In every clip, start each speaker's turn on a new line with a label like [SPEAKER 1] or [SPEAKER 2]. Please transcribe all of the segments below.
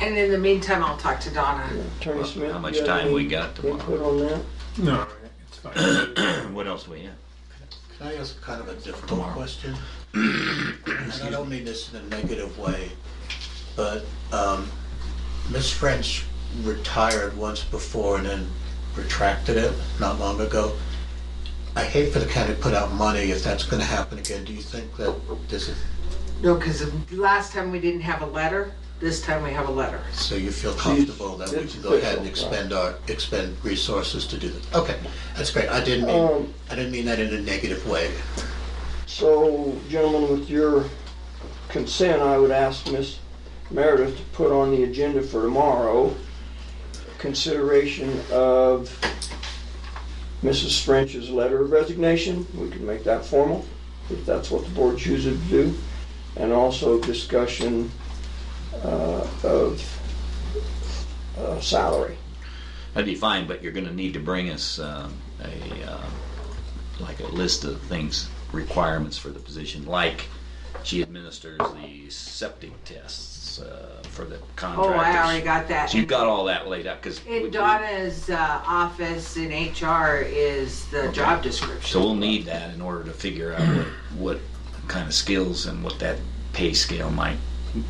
[SPEAKER 1] And in the meantime, I'll talk to Donna.
[SPEAKER 2] Attorney Smith.
[SPEAKER 3] How much
[SPEAKER 2] you have
[SPEAKER 3] time we
[SPEAKER 2] any
[SPEAKER 3] got tomorrow?
[SPEAKER 2] Input on that?
[SPEAKER 4] No, it's fine.
[SPEAKER 3] What else we have?
[SPEAKER 5] Can I ask kind of a difficult
[SPEAKER 3] Tomorrow.
[SPEAKER 5] question? And I don't mean this in a negative way, but um, Ms. French retired once before and then retracted it not long ago. I hate for the county to put out money if that's gonna happen again. Do you think that this is,
[SPEAKER 1] No, because last time we didn't have a letter, this time we have a letter.
[SPEAKER 5] so you feel comfortable that we can go ahead and expend our, expend resources to do this? Okay, that's great. I didn't mean,
[SPEAKER 2] Um,
[SPEAKER 5] I didn't mean that in a negative way.
[SPEAKER 2] So, gentlemen, with your consent, I would ask Miss Meredith to put on the agenda for tomorrow consideration of Mrs. French's letter of resignation. We can make that formal, if that's what the board chooses to do. And also discussion uh, of uh, salary.
[SPEAKER 3] That'd be fine, but you're gonna need to bring us um, a, um, like a list of things, requirements for the position, like she administers the septic tests uh, for the
[SPEAKER 1] Oh,
[SPEAKER 3] contractors.
[SPEAKER 1] I already got that.
[SPEAKER 3] So you've got all that laid out, because.
[SPEAKER 1] In Donna's uh, office in HR is the job
[SPEAKER 3] So
[SPEAKER 1] description.
[SPEAKER 3] we'll need that in order to figure out what, what kind of skills and what that pay scale might,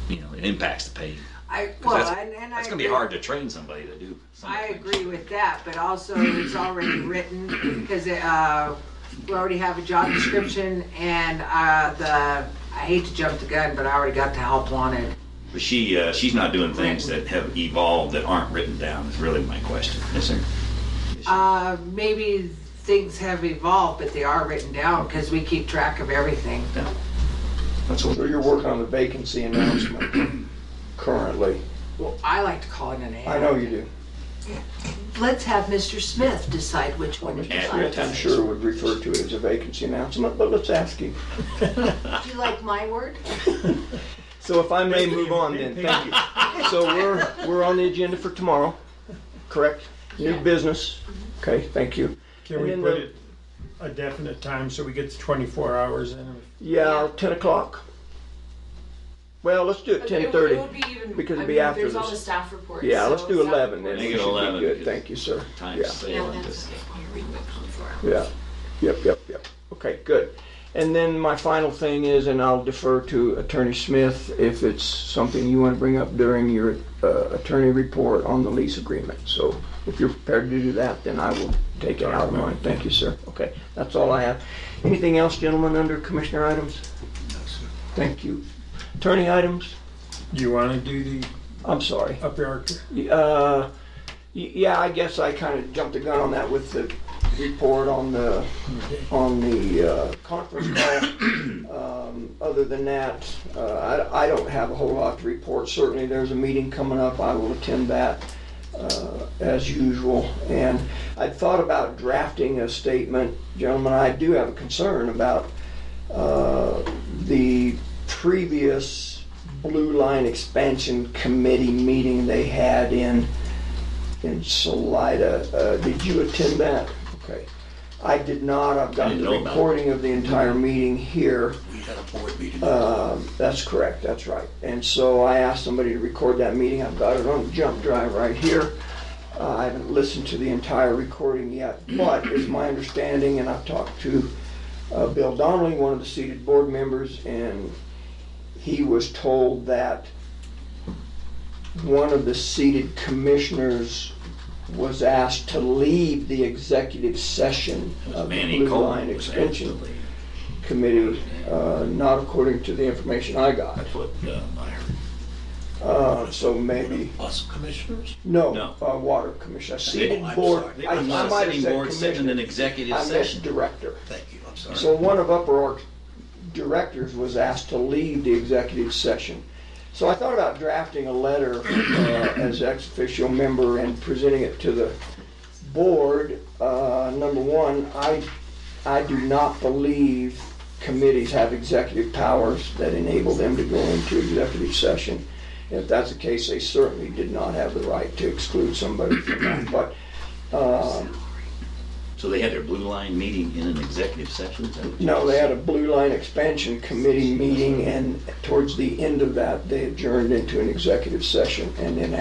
[SPEAKER 3] you know, it impacts the pay. 'Cause
[SPEAKER 1] I, well,
[SPEAKER 3] that's-
[SPEAKER 1] and, and I.
[SPEAKER 3] That's gonna be
[SPEAKER 1] agree-
[SPEAKER 3] hard to train somebody to do. some of the
[SPEAKER 1] I
[SPEAKER 3] things.
[SPEAKER 1] agree with that, but also it's already written, because it, uh, we already have a job description and, uh, the, I hate to jump the gun, but I already got the help wanted.
[SPEAKER 3] But she, uh, she's not doing things that have evolved that aren't written down, is really my question, is there?
[SPEAKER 1] Uh, maybe things have evolved, but they are written down, because we keep track of everything.
[SPEAKER 3] That's what
[SPEAKER 2] So you're working on the vacancy announcement currently.
[SPEAKER 1] Well, I like to call it an ad.
[SPEAKER 2] I know you do.
[SPEAKER 1] Let's have Mr. Smith decide which one he
[SPEAKER 3] Ad
[SPEAKER 1] likes.
[SPEAKER 2] I'm sure would refer to it as a vacancy announcement, but let's ask him.
[SPEAKER 1] Do you like my word?
[SPEAKER 2] So if I may move on then, thank you. So we're, we're on the agenda for tomorrow, correct? New business, okay, thank you.
[SPEAKER 4] Can
[SPEAKER 2] And
[SPEAKER 4] we
[SPEAKER 2] then
[SPEAKER 4] put
[SPEAKER 2] the-
[SPEAKER 4] it a definite time so we get to 24 hours in?
[SPEAKER 2] Yeah, ten o'clock? Well, let's do it
[SPEAKER 6] It would-
[SPEAKER 2] ten thirty.
[SPEAKER 6] It would be even.
[SPEAKER 2] because it'd
[SPEAKER 6] I
[SPEAKER 2] be
[SPEAKER 6] mean,
[SPEAKER 2] after
[SPEAKER 6] There's all
[SPEAKER 2] this.
[SPEAKER 6] the staff reports.
[SPEAKER 2] Yeah,
[SPEAKER 6] so
[SPEAKER 2] let's do
[SPEAKER 6] staff
[SPEAKER 2] eleven then.
[SPEAKER 6] reports-
[SPEAKER 3] Make
[SPEAKER 2] We
[SPEAKER 3] it
[SPEAKER 2] should be
[SPEAKER 3] 11,
[SPEAKER 2] good.
[SPEAKER 3] because
[SPEAKER 2] Thank you, sir.
[SPEAKER 3] Time
[SPEAKER 2] Yeah.
[SPEAKER 6] Yeah,
[SPEAKER 3] sailing.
[SPEAKER 6] that's.
[SPEAKER 2] Yeah, yep, yep, yep. Okay, good. And then my final thing is, and I'll defer to Attorney Smith if it's something you want to bring up during your uh, attorney report on the lease agreement. So if you're prepared to do that, then I will take it out of mine. Thank you, sir. Okay, that's all I have. Anything else, gentlemen, under commissioner items? Thank you. Attorney items?
[SPEAKER 4] Do you want to do the
[SPEAKER 2] I'm sorry.
[SPEAKER 4] up yard?
[SPEAKER 2] Uh, y- yeah, I guess I kind of jumped the gun on that with the report on the, on the uh, conference call. Um, Other than that, uh, I, I don't have a whole lot to report. Certainly, there's a meeting coming up. I will attend that uh, as usual. And I thought about drafting a statement. Gentlemen, I do have a concern about uh, the previous Blue Line Expansion Committee meeting they had in, in Salida. Uh, Did you attend that? Okay. I did not. I've got
[SPEAKER 3] didn't
[SPEAKER 2] the
[SPEAKER 3] know about it.
[SPEAKER 2] recording of the entire meeting here.
[SPEAKER 5] We had a board meeting.
[SPEAKER 2] Um, That's correct, that's right. And so I asked somebody to record that meeting, I've got it on jump drive right here. Uh, I haven't listened to the entire recording yet, but it's my understanding, and I've talked to uh, Bill Donnelly, one of the seated board members, and he was told that one of the seated commissioners was asked to leave the executive session of the
[SPEAKER 3] Manny
[SPEAKER 2] Uh, Blue
[SPEAKER 3] Cole
[SPEAKER 2] Line
[SPEAKER 3] was
[SPEAKER 2] Extension
[SPEAKER 3] actually,
[SPEAKER 2] committee, uh, not according to the information I got.
[SPEAKER 3] that's what uh, I heard.
[SPEAKER 2] Uh, So maybe,
[SPEAKER 5] Us commissioners?
[SPEAKER 2] no,
[SPEAKER 3] No.
[SPEAKER 2] uh, water commission, a seated
[SPEAKER 5] Oh, I'm
[SPEAKER 2] board.
[SPEAKER 5] sorry.
[SPEAKER 2] I- I
[SPEAKER 3] I'm not
[SPEAKER 2] might have
[SPEAKER 3] sitting
[SPEAKER 2] said
[SPEAKER 3] board sitting in an
[SPEAKER 2] commissioner.
[SPEAKER 3] executive
[SPEAKER 2] I meant
[SPEAKER 3] session.
[SPEAKER 2] director.
[SPEAKER 5] Thank you, I'm sorry.
[SPEAKER 2] So one of Upper Ark directors was asked to leave the executive session. So I thought about drafting a letter uh, as ex officio member and presenting it to the board. Uh, Number one, I, I do not believe committees have executive powers that enable them to go into executive session. If that's the case, they certainly did not have the right to exclude somebody from that. But um,
[SPEAKER 3] So they had their Blue Line meeting in an executive session? Is that what you
[SPEAKER 2] No, they
[SPEAKER 3] said?
[SPEAKER 2] had a Blue Line Expansion Committee meeting, and towards the end of that, they adjourned into an executive session, and then